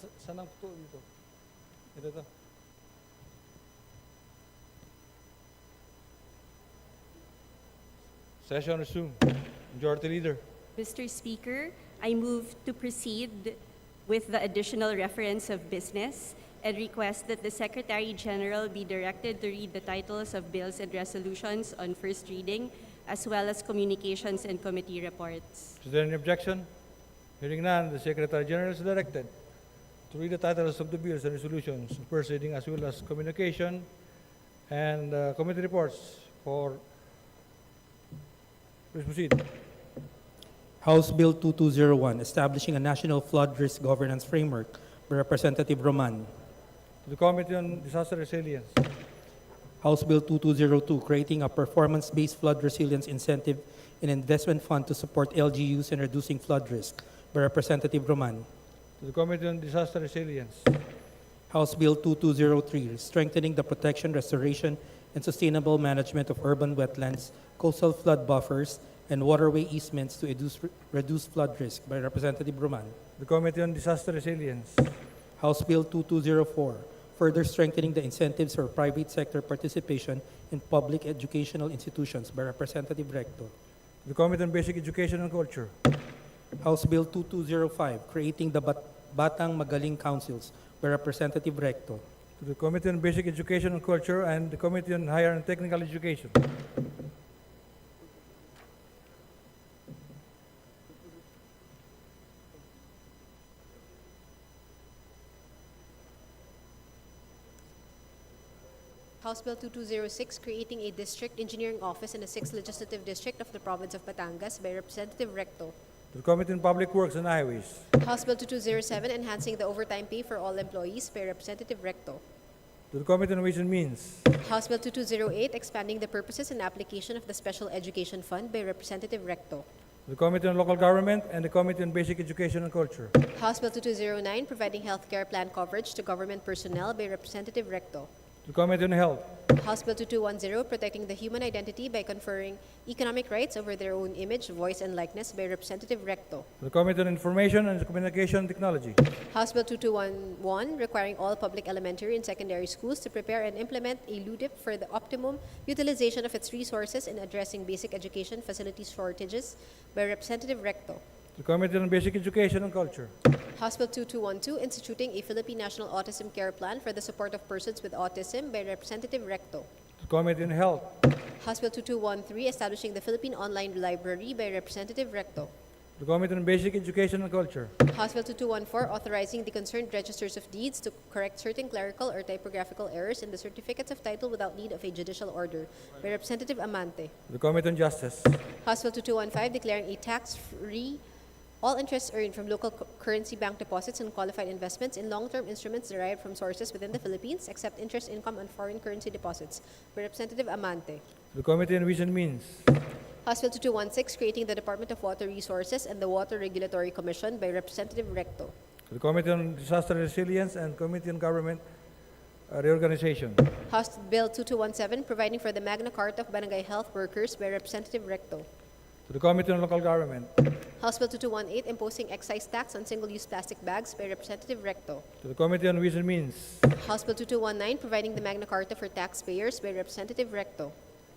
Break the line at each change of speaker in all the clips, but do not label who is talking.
Sa- saan ang puto dito? Ito to. Session resumed. Majority Leader.
Mr. Speaker, I move to proceed with the additional reference of business and request that the Secretary General be directed to read the titles of bills and resolutions on first reading as well as communications and committee reports.
Is there any objection? Hearing none, the Secretary General is directed to read the titles of the bills and resolutions, first reading as well as communication and uh, committee reports for... Please proceed.
House Bill 2201, Establishing a National Flood Risk Governance Framework by Representative Roman.
To the Committee on Disaster Resilience.
House Bill 2202, Creating a Performance-Based Flood Resilience Incentive and Investment Fund to Support LGUs and Reducing Flood Risk by Representative Roman.
To the Committee on Disaster Resilience.
House Bill 2203, Strengthening the Protection, Restoration, and Sustainable Management of Urban Wetlands, Coastal Flood Buffers, and Waterway Easements to Reduce- Reduce Flood Risk by Representative Roman.
The Committee on Disaster Resilience.
House Bill 2204, further strengthening the incentives for private sector participation in public educational institutions by Representative Recto.
The Committee on Basic Education and Culture.
House Bill 2205, creating the Bat- Batang Magaling Councils by Representative Recto.
To the Committee on Basic Education and Culture and the Committee on Higher and Technical Education.
House Bill 2206, creating a district engineering office in the 6th Legislative District of the Province of Batangas by Representative Recto.
To the Committee on Public Works and Highways.
House Bill 2207, enhancing the overtime pay for all employees by Representative Recto.
To the Committee on Ways and Means.
House Bill 2208, expanding the purposes and application of the Special Education Fund by Representative Recto.
To the Committee on Local Government and the Committee on Basic Education and Culture. To
House Bill 2209, providing healthcare plan coverage to government personnel by Representative Recto.
the Committee on Health.
House Bill 2210, protecting the human identity by conferring economic rights over their own image, voice, and likeness by Representative Recto.
To the Committee on Information and Communication Technology. To
House Bill 2211, requiring all public elementary and secondary schools to prepare and implement a LUDIP for the optimum utilization of its resources in addressing basic education facilities shortages by Representative Recto.
the Committee on Basic Education and Culture.
House Bill 2212, instituting a Philippine National Autism Care Plan for the support of persons with autism by Representative Recto.
To the Committee on Health.
House Bill 2213, establishing the Philippine Online Library by Representative Recto.
To the Committee on Basic Education and Culture.
House Bill 2214, authorizing the concerned registers of deeds to correct certain clerical or typographical errors in the certificates of title without need of a judicial order by Representative Amante.
To the Committee on Justice.
House Bill 2215, declaring a tax-free all interest earned from local cu- currency bank deposits and qualified investments in long-term instruments derived from sources within the Philippines, except interest income on foreign currency deposits by Representative Amante.
To the Committee on Ways and Means.
House Bill 2216, creating the Department of Water Resources and the Water Regulatory Commission by Representative Recto.
To the Committee on Disaster Resilience and Committee on Government uh, Reorganization.
House Bill 2217, providing for the Magna Carta of Barangay Health Workers by Representative Recto.
To the Committee on Local Government.
House Bill 2218, imposing excise tax on single-use plastic bags by Representative Recto.
To the Committee on Ways and Means.
House Bill 2219, providing the Magna Carta for taxpayers by Representative Recto.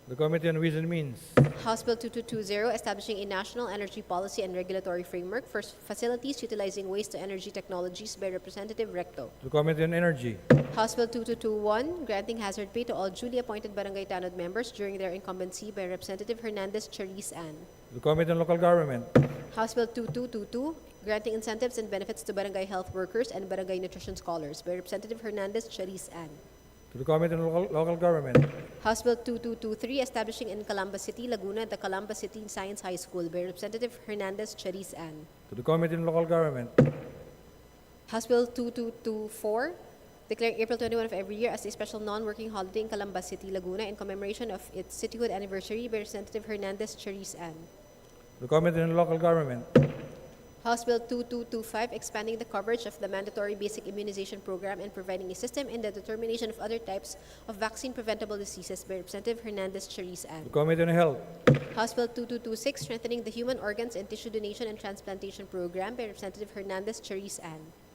The Committee on Ways and Means.
House Bill 2220, establishing a national energy policy and regulatory framework for s- facilities utilizing waste-to-energy technologies by Representative Recto.
The Committee on Energy.
House Bill 2221, granting hazard pay to all duly appointed Barangay Tanod members during their incumbency by Representative Hernandez Cheriz Ann.
The Committee on Local Government.
House Bill 2222, granting incentives and benefits to barangay health workers and barangay nutrition scholars by Representative Hernandez Chariz Ann.
To the Committee on Local, Local Government.
House Bill 2223, establishing in Calamba City, Laguna, the Calamba City Science High School by Representative Hernandez Chariz Ann.
To the Committee on Local Government.
House Bill 2224, declaring April 21 of every year as a special non-working holiday in Calamba City, Laguna in commemoration of its cityhood anniversary by Representative Hernandez Chariz Ann.
To the Committee on Local Government.
House Bill 2225, expanding the coverage of the mandatory basic immunization program and providing a system in the determination of other types of vaccine-preventable diseases by Representative Hernandez Cheriz
To the
Ann.
Committee on Health.
House Bill 2226, strengthening the human organs and tissue donation and transplantation program by Representative Hernandez Cheriz Ann.